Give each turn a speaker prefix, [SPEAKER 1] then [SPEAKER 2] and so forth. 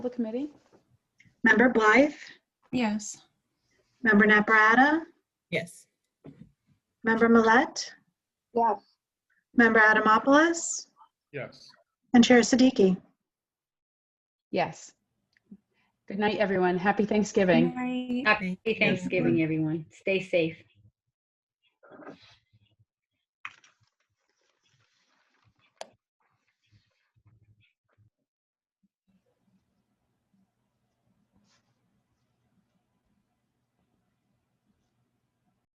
[SPEAKER 1] the committee?
[SPEAKER 2] Member Blythe?
[SPEAKER 3] Yes.
[SPEAKER 2] Member Naprata?
[SPEAKER 4] Yes.
[SPEAKER 2] Member Millet?
[SPEAKER 1] Yes.
[SPEAKER 2] Member Adamopoulos?
[SPEAKER 5] Yes.
[SPEAKER 2] And Chair Siddiqui?
[SPEAKER 1] Yes. Good night, everyone. Happy Thanksgiving.
[SPEAKER 3] Right.
[SPEAKER 6] Happy Thanksgiving, everyone. Stay safe.